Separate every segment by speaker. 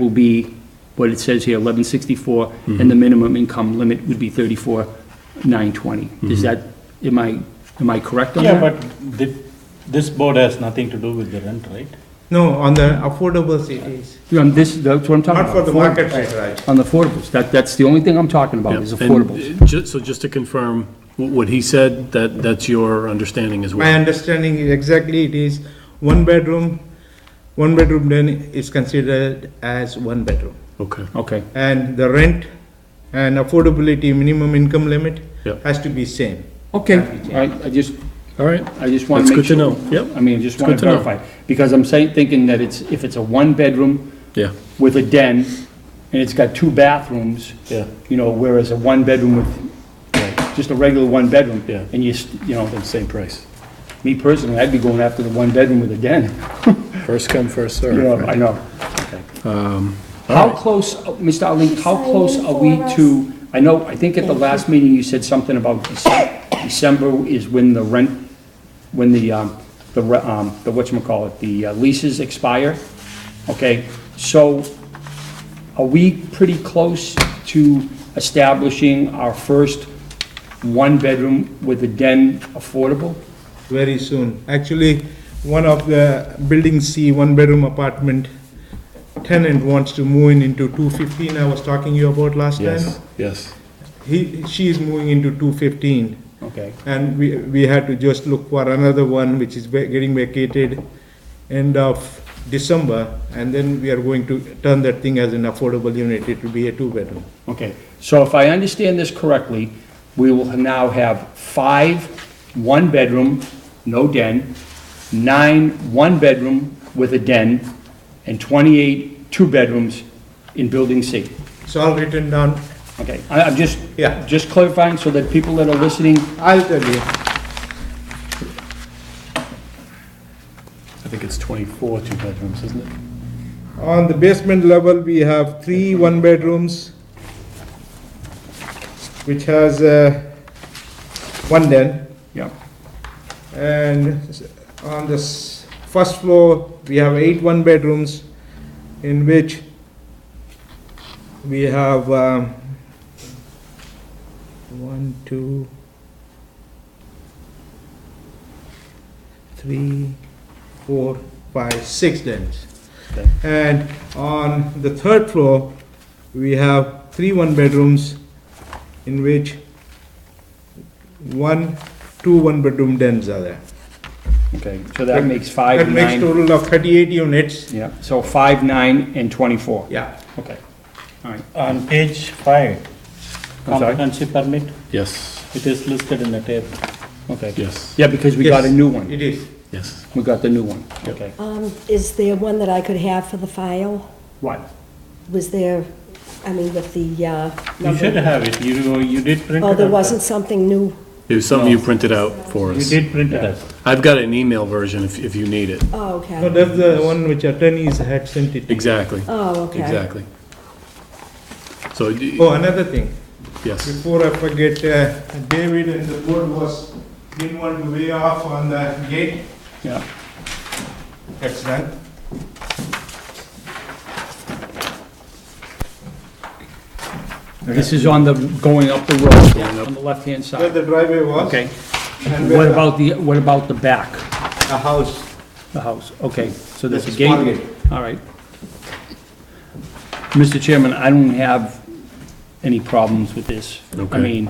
Speaker 1: will be what it says here, 1164, and
Speaker 2: Mm-hmm.
Speaker 1: the minimum income limit would be 34,920.
Speaker 2: Mm-hmm.
Speaker 1: Is that, am I, am I correct on that?
Speaker 3: Yeah, but thi- this board has nothing to do with the rent, right?
Speaker 4: No, on the affordable cities,
Speaker 1: Yeah, on this, that's what I'm talking
Speaker 4: not
Speaker 1: about.
Speaker 4: for the
Speaker 1: affordables.
Speaker 4: market rate, right?
Speaker 1: On the affordables, that, that's the only thing I'm talking about, is
Speaker 2: Yeah, and,
Speaker 1: affordables.
Speaker 2: uh, ju- So just to confirm, wh- what he said, that, that's your understanding as
Speaker 4: My
Speaker 2: well?
Speaker 4: understanding is exactly it is one bedroom, one bedroom then is considered as one bedroom.
Speaker 2: Okay,
Speaker 1: Okay,
Speaker 4: And the rent and affordability minimum income limit
Speaker 2: Yeah.
Speaker 4: has to be same.
Speaker 1: okay, I, I just,
Speaker 2: all right,
Speaker 1: I just want
Speaker 2: That's
Speaker 1: to make
Speaker 2: good
Speaker 1: sure.
Speaker 2: to know. Yep.
Speaker 1: I mean, I just
Speaker 2: It's
Speaker 1: want
Speaker 2: good
Speaker 1: to
Speaker 2: to know.
Speaker 1: verify, because I'm saying, thinking that it's, if it's a one-bedroom
Speaker 2: yeah,
Speaker 1: with a den, and it's got two bathrooms,
Speaker 2: yeah,
Speaker 1: you know, whereas a one-bedroom with, just a regular one-bedroom,
Speaker 2: Yeah.
Speaker 1: and you, s- you know,
Speaker 2: and same price.
Speaker 1: me personally, I'd be going after the one-bedroom with a den,
Speaker 2: First come, first
Speaker 1: you
Speaker 2: served.
Speaker 1: know, I
Speaker 2: right?
Speaker 1: know.
Speaker 2: All
Speaker 1: Um, How
Speaker 2: right.
Speaker 1: close, Mr. Ali, how
Speaker 5: Sign
Speaker 1: close
Speaker 5: in
Speaker 1: are
Speaker 5: for
Speaker 1: we
Speaker 5: us.
Speaker 1: to, I know, I think at the last meeting you said something about Dece- December is when the rent, when the, um, the, re- um, the whatchamacallit, the uh, leases expire, okay? So are we pretty close to establishing our first one-bedroom with a den affordable?
Speaker 4: very soon. Actually, one of the building C, one bedroom apartment tenant wants to move in into two fifteen, I was talking to you about last time.
Speaker 2: Yes, yes,
Speaker 4: He, she is moving into two fifteen,
Speaker 1: Okay,
Speaker 4: and we, we had to just look for another one which is va- getting vacated end of December, and then we are going to turn that thing as an affordable unit, it will be a two bedroom.
Speaker 1: okay. So if I understand this correctly, we will now have five one-bedroom, no den, nine one-bedroom with a den, and 28 two-bedrooms in Building C.
Speaker 4: It's all written down,
Speaker 1: Okay, I- I'm just,
Speaker 4: Yeah.
Speaker 1: just clarifying so that people that are listening,
Speaker 4: I'll tell you,
Speaker 2: I think it's 24 two bedrooms, isn't it?
Speaker 4: on the basement level, we have three one bedrooms, which has uh, one den,
Speaker 1: yeah,
Speaker 4: and on the s- first floor, we have eight one bedrooms, in which we have um, one, two, three, four, five, six dens.
Speaker 2: Okay.
Speaker 4: And on the third floor, we have three one bedrooms, in which one, two one bedroom dens are there.
Speaker 1: okay. So that makes five,
Speaker 4: That makes
Speaker 1: nine,
Speaker 4: total of thirty-eight units.
Speaker 1: yeah, so five, nine, and 24.
Speaker 4: Yeah.
Speaker 1: Okay, all right.
Speaker 3: On page five,
Speaker 1: I'm sorry?
Speaker 3: occupancy permit,
Speaker 2: Yes,
Speaker 3: it is listed in the table.
Speaker 1: Okay.
Speaker 2: yes,
Speaker 1: Yeah, because we got a
Speaker 4: Yes,
Speaker 1: new one.
Speaker 4: It is.
Speaker 2: yes.
Speaker 1: We got the new one, okay.
Speaker 5: Um, is there one that I could have for the file?
Speaker 1: Right.
Speaker 5: Was there, I mean, with the, uh,
Speaker 3: You should
Speaker 5: number?
Speaker 3: have it, you, you did print it
Speaker 5: Oh, there
Speaker 3: out.
Speaker 5: wasn't something new?
Speaker 2: It was something you printed out for
Speaker 3: You
Speaker 2: us.
Speaker 3: did print it out.
Speaker 2: I've got an email version if, if you need it.
Speaker 5: Oh,
Speaker 4: No,
Speaker 5: okay.
Speaker 4: that's the one which attorneys had sent it. to.
Speaker 2: Exactly,
Speaker 5: Oh, okay.
Speaker 2: exactly. So, d-
Speaker 4: Oh, another thing,
Speaker 2: yes,
Speaker 4: before I forget, uh, David and the board was, didn't want to weigh off on the gate.
Speaker 1: Yeah,
Speaker 4: That's done.
Speaker 1: this is on the, going up the road, on the left-hand
Speaker 4: Where
Speaker 1: side.
Speaker 4: the driveway was.
Speaker 1: Okay,
Speaker 4: And
Speaker 1: what
Speaker 4: where
Speaker 1: about the, what about the back,
Speaker 4: the house.
Speaker 1: the house? Okay, so there's a
Speaker 4: There's a small
Speaker 1: gate, all right. Mr. Chairman, I don't have any problems with this.
Speaker 2: Okay.
Speaker 1: I mean,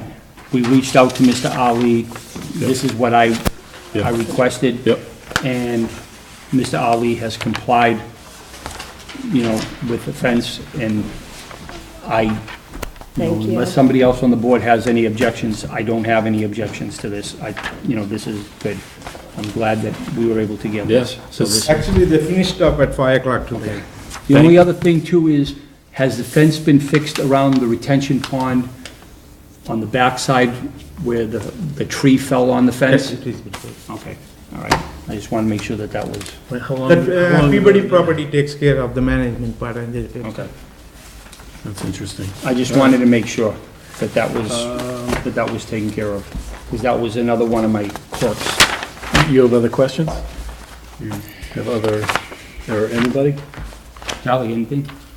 Speaker 1: we reached out to Mr. Ali, this is what I,
Speaker 2: Yeah.
Speaker 1: I requested.
Speaker 2: yep,
Speaker 1: and Mr. Ali has complied, you know, with the fence, and I, you know,
Speaker 5: Thank you.
Speaker 1: unless somebody else on the board has any objections, I don't have any objections to this. I, you know, this is good. I'm glad that we were able to get this.
Speaker 2: yes.
Speaker 1: So this-
Speaker 4: Actually, they finished up at five o'clock today.
Speaker 1: The only other thing too is, has the fence been fixed around the retention pond on the backside where the, the tree fell on the fence?
Speaker 4: It is.
Speaker 1: Okay, all right. I just want to make sure that that was,
Speaker 2: Wait, how long-
Speaker 4: That,
Speaker 2: how
Speaker 4: uh,
Speaker 2: long-
Speaker 4: Peabody property takes care of the management part and they. they-
Speaker 1: okay.
Speaker 2: That's interesting.
Speaker 1: I just wanted to make sure that that was, that that was taken care of, because that was another one of my quirks.
Speaker 2: You have other questions? You have other, or anybody?
Speaker 1: Charlie, anything?